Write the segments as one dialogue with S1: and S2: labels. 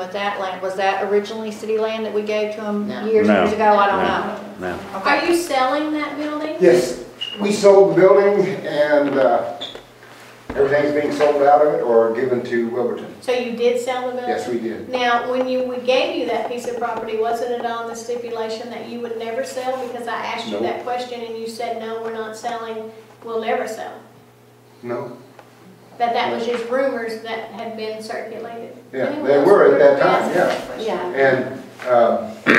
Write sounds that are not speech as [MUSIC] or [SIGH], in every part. S1: With that land, was that originally city land that we gave to them
S2: No.
S1: years,
S3: No.
S1: years ago? I don't
S3: No.
S1: know.
S3: No.
S2: Are
S1: Okay.
S2: you selling that building?
S4: Yes, we sold the building and uh, everything's being sold out of it or given to Wilburton.
S2: So you did sell the building?
S4: Yes, we did.
S2: Now, when you, we gave you that piece of property, wasn't it on the stipulation that you would never sell? Because I asked you
S4: No.
S2: that question and you said, no, we're not selling, we'll never sell.
S4: No?
S2: That that was just rumors that had been circulated.
S4: Yeah,
S2: Anyway,
S4: they were at that time,
S2: that's-
S4: yeah.
S1: Yeah,
S4: And, uh,
S1: but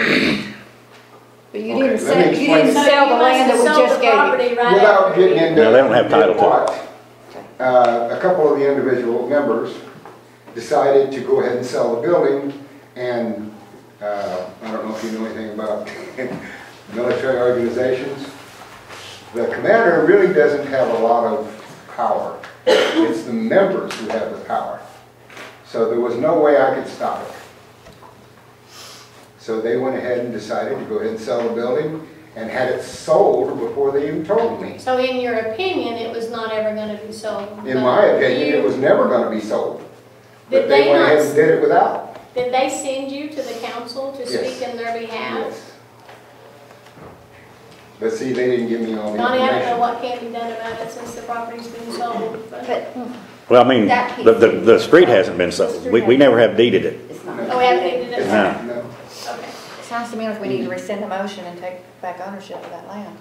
S1: you didn't
S4: Okay, let me
S1: sell, you
S4: explain.
S1: didn't
S2: So
S1: sell
S2: you
S1: the
S2: must
S1: land that
S2: have
S1: we
S2: sold
S1: just
S2: the
S1: gave you.
S2: property right
S4: without
S2: after
S4: getting
S2: you-
S4: into.
S3: No, they don't have title to it.
S4: what, Uh, a couple of the individual members decided to go ahead and sell the building and, uh, I don't know if you know anything about [LAUGHS] military organizations. The commander really doesn't have a lot of power. It's the members who have the power. So there was no way I could stop it. So they went ahead and decided to go ahead and sell the building and had it sold before they even told me.
S2: So in your opinion, it was not ever gonna be sold?
S4: In my
S2: but
S4: opinion, it
S2: you-
S4: was never gonna be sold.
S2: Did
S4: But they
S2: they
S4: went ahead
S2: not-
S4: and did it without.
S2: Did they send you to the council to
S4: Yes.
S2: speak in their behalf?
S4: Yes. But see, they didn't give me all the
S2: Donnie, I
S4: information.
S2: don't know what can be done about it since the property's been sold, but,
S5: But
S3: Well, I mean,
S5: That piece.
S3: the, the, the street hasn't been sold. We, we never have deeded it.
S5: it's not.
S2: oh, we haven't needed it, okay.
S3: No.
S4: No.
S1: Sounds to me like we need to rescind the motion and take back ownership of that land.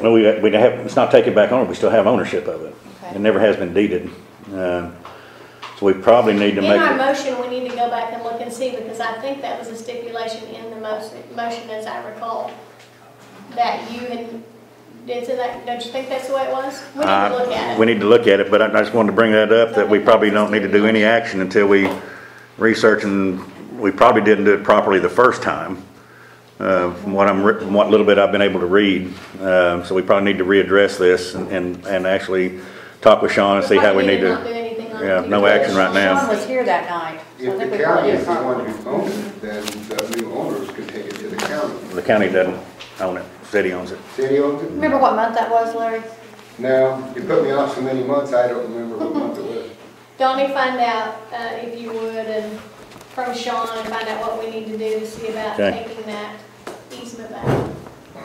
S3: Well, we, we have, it's not taken back on, we still have ownership of it.
S1: Okay.
S3: It never has been deeded. Um, So we probably need to
S2: In
S3: make
S2: our
S3: it.
S2: motion, we need to go back and look and see, because I think that was a stipulation in the motion, motion as I recall, that you and, did that, don't you think that's the way it was? We need to look
S3: Uh,
S2: at
S3: We
S2: it.
S3: need to look at it, but I I just wanted to bring that up, that we probably don't need to do any action until we research and we probably didn't do it properly the first time. uh, From what I'm, re- from what little bit I've been able to read. Um, So we probably need to readdress this and- and, and actually talk with Sean and see how we need
S2: Not do
S3: to.
S2: anything on it.
S3: yeah, no action right now.
S1: Sean was here that night. so I
S4: If
S1: think
S4: the
S1: we probably
S4: county is the
S1: did
S4: one who owns it, then the new owners could take it to the county.
S3: The county doesn't own it, city owns it.
S4: City owns it?
S1: Remember what month that was, Larry?
S4: No, you put me off so many months, I don't remember what month it
S2: [LAUGHS]
S4: was.
S2: Donnie, find out, uh, if you would, and from Sean, and find out what we need to do to see about
S3: Okay.
S2: taking that easement back.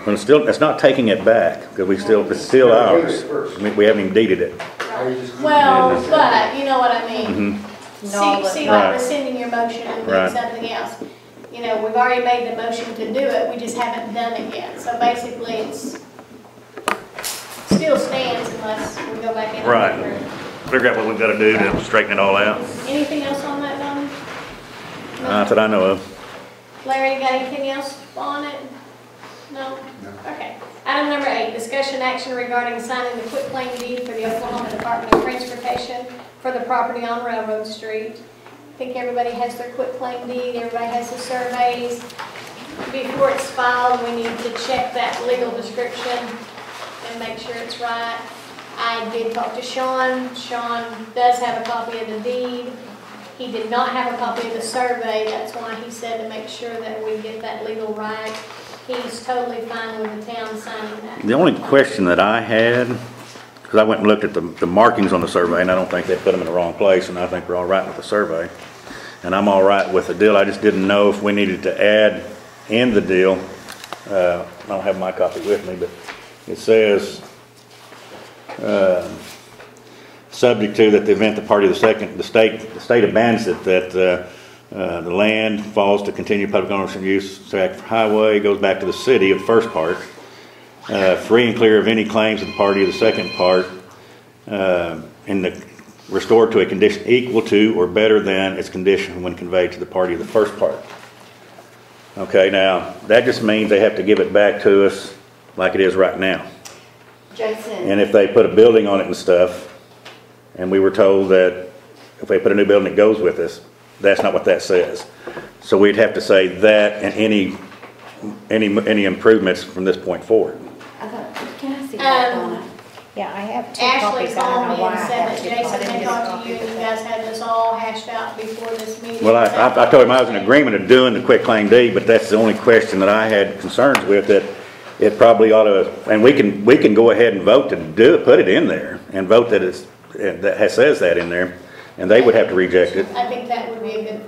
S3: But it's still, it's not taking it back, because we still, it's still ours. We we haven't even deeded it. Mm-hmm.
S4: How you just-
S2: Well, but, you know what I mean?
S1: No,
S2: See,
S1: but-
S2: see, like
S3: Right.
S2: rescinding your motion and doing
S3: Right.
S2: something else. You know, we've already made the motion to do it, we just haven't done it yet. So basically, it's, still stands unless we go back in.
S3: Right. Figure out what we've got to do to straighten it all out.
S2: Anything else on that, Donnie?
S3: Not that Uh, I know of.
S2: Larry, you got anything else on it? No?
S4: No.
S2: Okay. Item number eight, discussion action regarding signing the quitclaim deed for the Oklahoma Department of Transportation for the property on Railroad Street. I think everybody has their quitclaim deed, everybody has their surveys. Before it's filed, we need to check that legal description and make sure it's right. I did talk to Sean. Sean does have a copy of the deed. He did not have a copy of the survey, that's why he said to make sure that we get that legal right. He's totally fine with the town signing that.
S3: The only question that I had, because I went and looked at the, the markings on the survey, and I don't think they put them in the wrong place, and I think we're all right with the survey. And I'm all right with the deal. I just didn't know if we needed to add in the deal. Uh, I don't have my copy with me, but it says, uh, subject to that the event the party of the second, the state, the state abandons it, that, uh, uh, the land falls to continue public ownership and use, tract for highway, goes back to the city of the first part, uh, free and clear of any claims of the party of the second part, uh, and the, restored to a condition equal to or better than its condition when conveyed to the party of the first part. Okay, now, that just means they have to give it back to us like it is right now.
S5: Jason,
S3: And if they put a building on it and stuff, and we were told that if they put a new building, it goes with us, that's not what that says. So we'd have to say that and any, any, any improvements from this point forward.
S5: I thought, can I see that,
S2: Um,
S5: Donna?
S1: Yeah, I have two
S2: Ashley
S1: copies. I don't
S2: called
S1: know
S2: me
S1: why I
S2: and said
S1: have
S2: that
S1: two. I
S2: Jason
S1: didn't get
S2: had
S1: a
S2: talked to
S1: copy
S2: you
S1: of
S2: and you
S1: that.
S2: guys had this all hashed out before this meeting.
S3: Well, I, I- I told him I was in agreement of doing the quick claim deed, but that's the only question that I had concerns with, that it probably ought to, and we can, we can go ahead and vote to do, it, put it in there, and vote that it's, that says that in there, and they would have to reject it.
S2: I think that would be a good thing.